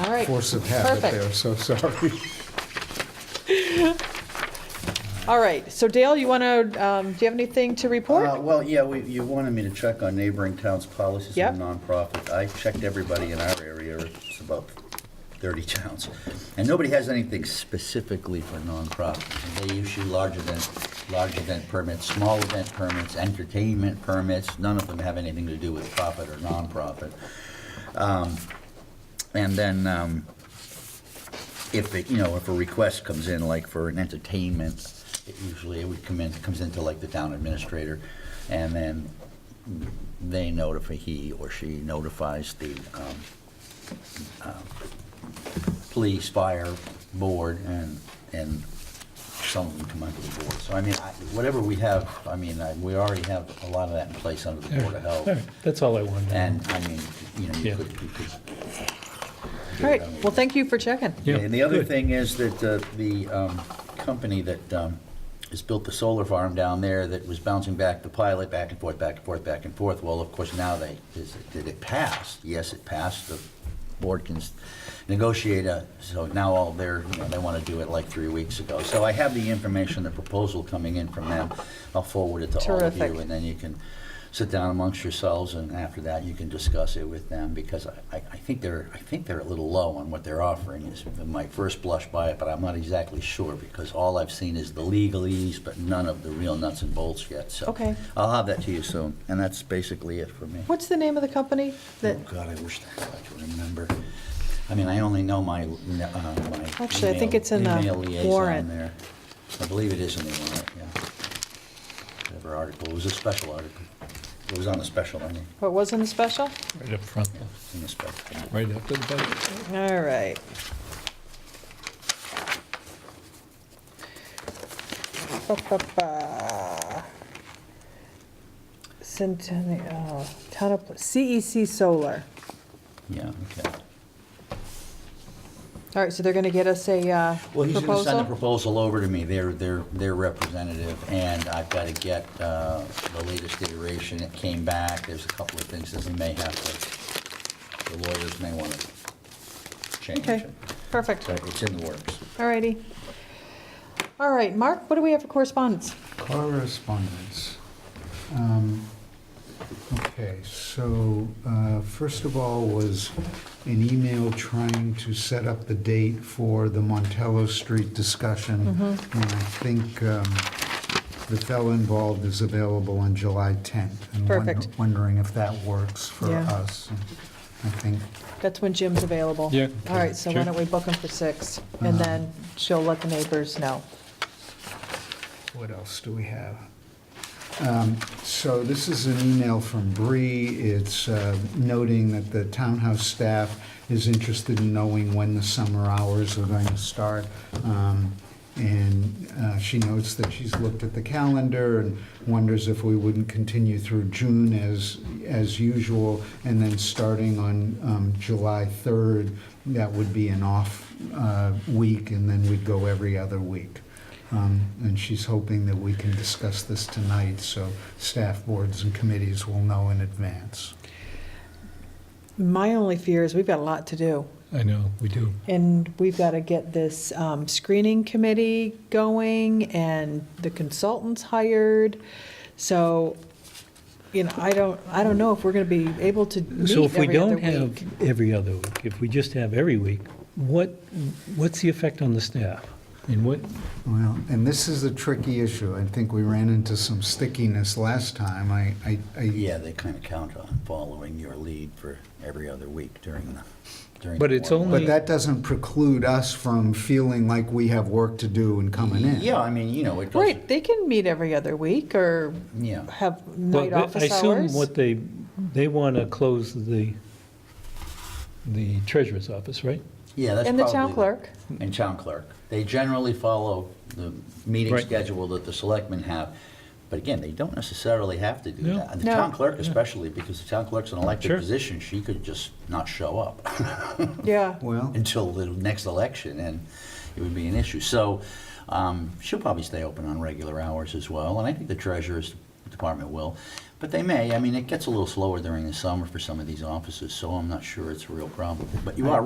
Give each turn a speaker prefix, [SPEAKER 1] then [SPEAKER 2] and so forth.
[SPEAKER 1] All right.
[SPEAKER 2] Force of habit
[SPEAKER 1] Perfect.
[SPEAKER 2] there, so sorry.
[SPEAKER 1] All right, so Dale, you want to, do you have anything to
[SPEAKER 3] Uh,
[SPEAKER 1] report?
[SPEAKER 3] Well, yeah, we- you wanted me to check on neighboring towns' policies
[SPEAKER 1] Yep.
[SPEAKER 3] on nonprofit. I checked everybody in our area, it's about 30 towns, and nobody has anything specifically for nonprofits. And They issue large event, large event permits, small event permits, entertainment permits, none of them have anything to do with profit or nonprofit. Um, And then, um, if it, you know, if a request comes in, like for an entertainment, it usually it would come in, comes into like the town administrator, and then they notify, he or she notifies the um, uh, police, fire, board, and, and some of them come under the board. So I mean, I- whatever we have, I mean, I- we already have a lot of that in place under the Board of Health.
[SPEAKER 4] All right, That's all I wanted. to know.
[SPEAKER 3] And, I mean, you know, you
[SPEAKER 4] Yeah.
[SPEAKER 3] could, you could.
[SPEAKER 1] All right, well, thank you for checking.
[SPEAKER 4] Yeah,
[SPEAKER 3] And the other
[SPEAKER 4] good.
[SPEAKER 3] thing is that uh, the um, company that um, has built the solar farm down there that was bouncing back the pilot, back and forth, back and forth, back and forth, well, of course, now they, is it- did it pass? Yes, it passed. The board can s- negotiate, a- so now all they're, you know, they want to do it like three weeks ago. So I have the information, the proposal coming in from them. I'll forward it to all of
[SPEAKER 1] Terrific.
[SPEAKER 3] you, and then you can sit down amongst yourselves, and after that, you can discuss it with them, because I, I I think they're, I think they're a little low on what they're offering, is my first blush by it, but I'm not exactly sure, because all I've seen is the legalese, but none of the real nuts and bolts yet, so.
[SPEAKER 1] Okay.
[SPEAKER 3] I'll have that to you soon, and that's basically it for me.
[SPEAKER 1] What's the name of the company that,
[SPEAKER 3] Oh, God, I wish I could remember. I mean, I only know my, uh, my.
[SPEAKER 1] Actually, I think
[SPEAKER 3] email-
[SPEAKER 1] it's in the
[SPEAKER 3] email liaison
[SPEAKER 1] warrant.
[SPEAKER 3] there. I believe it is in the warrant, yeah. Whatever article, it was a special article. It was on the special, I mean,
[SPEAKER 1] what was in the special?
[SPEAKER 4] Right up front,
[SPEAKER 3] in the special.
[SPEAKER 4] right after the budget.
[SPEAKER 1] All right. Ba-ba-ba. Centennial, oh, town of, CEC Solar.
[SPEAKER 3] Yeah, okay.
[SPEAKER 1] All right, so they're going to get us a uh,
[SPEAKER 3] Well, he's gonna send the
[SPEAKER 1] proposal?
[SPEAKER 3] proposal over to me, their, their, their representative, and I've gotta get, uh, the latest iteration. It came back, there's a couple of things that we may have to, the lawyers may wanna change.
[SPEAKER 1] Okay, perfect.
[SPEAKER 3] So it's in the works.
[SPEAKER 1] All righty. All right, Mark, what do we have for correspondence?
[SPEAKER 2] Correspondence. Um, Okay, so uh, first of all was an email trying to set up the date for the Montello Street discussion.
[SPEAKER 1] Mm-hmm.
[SPEAKER 2] And I think um, the fellow involved is available on July 10th. and wonder-
[SPEAKER 1] Perfect.
[SPEAKER 2] Wondering if that works for
[SPEAKER 1] Yeah.
[SPEAKER 2] us. And I think,
[SPEAKER 1] That's when Jim's available.
[SPEAKER 4] Yeah.
[SPEAKER 1] All right, so why
[SPEAKER 4] Sure. Uh-huh.
[SPEAKER 1] don't we book him for six, and then she'll let the neighbors know.
[SPEAKER 2] what else do we have? Um, So this is an email from Bree. It's uh, noting that the townhouse staff is interested in knowing when the summer hours are going to start. Um, And uh, she notes that she's looked at the calendar and wonders if we wouldn't continue through June as, as usual. And then starting on um, July 3rd, that would be an off uh, week, and then we'd go every other week. Um, And she's hoping that we can discuss this tonight, so staff, boards, and committees will know in advance.
[SPEAKER 1] My only fear is we've got a lot to do,
[SPEAKER 4] I know, we do.
[SPEAKER 1] and we've got to get this um, screening committee going and the consultants hired. So, you know, I don't, I don't know if we're going to be able to
[SPEAKER 4] So
[SPEAKER 1] meet
[SPEAKER 4] if we
[SPEAKER 1] every other
[SPEAKER 4] don't
[SPEAKER 1] week.
[SPEAKER 4] have every other week, if we just have every week, what, what's the effect on the staff? And what,
[SPEAKER 2] Well, and this is a tricky issue. I think we ran into some stickiness last time. I, I- I,
[SPEAKER 3] Yeah, they kind of count on following your lead for every other week during the, during.
[SPEAKER 4] But
[SPEAKER 3] the
[SPEAKER 4] it's
[SPEAKER 3] warm-up.
[SPEAKER 2] but that doesn't preclude us from feeling like we have work to do and coming in.
[SPEAKER 3] Yeah, I mean, you know, it does.
[SPEAKER 1] Right, they can meet every other week, or
[SPEAKER 3] Yeah.
[SPEAKER 1] have
[SPEAKER 4] well,
[SPEAKER 1] night
[SPEAKER 4] I
[SPEAKER 1] office
[SPEAKER 4] assume
[SPEAKER 1] hours.
[SPEAKER 4] what they, they want to close the, the treasurer's office, right?
[SPEAKER 3] Yeah, that's
[SPEAKER 1] And the
[SPEAKER 3] probably-
[SPEAKER 1] town clerk.
[SPEAKER 3] And town clerk. They generally follow the meeting
[SPEAKER 4] Right.
[SPEAKER 3] schedule that the selectmen have. But again, they don't necessarily have to do
[SPEAKER 4] No.
[SPEAKER 3] that. And the
[SPEAKER 1] No.
[SPEAKER 3] town clerk especially, because the town clerk's an elected
[SPEAKER 4] Sure.
[SPEAKER 3] position, she could just not show up
[SPEAKER 1] Yeah.
[SPEAKER 2] Well,
[SPEAKER 3] until the next election, and it would be an issue. So um, she'll probably stay open on regular hours as well, and I think the treasurer's department will. But they may, I mean, it gets a little slower during the summer for some of these offices, so I'm not sure it's a real problem. But you are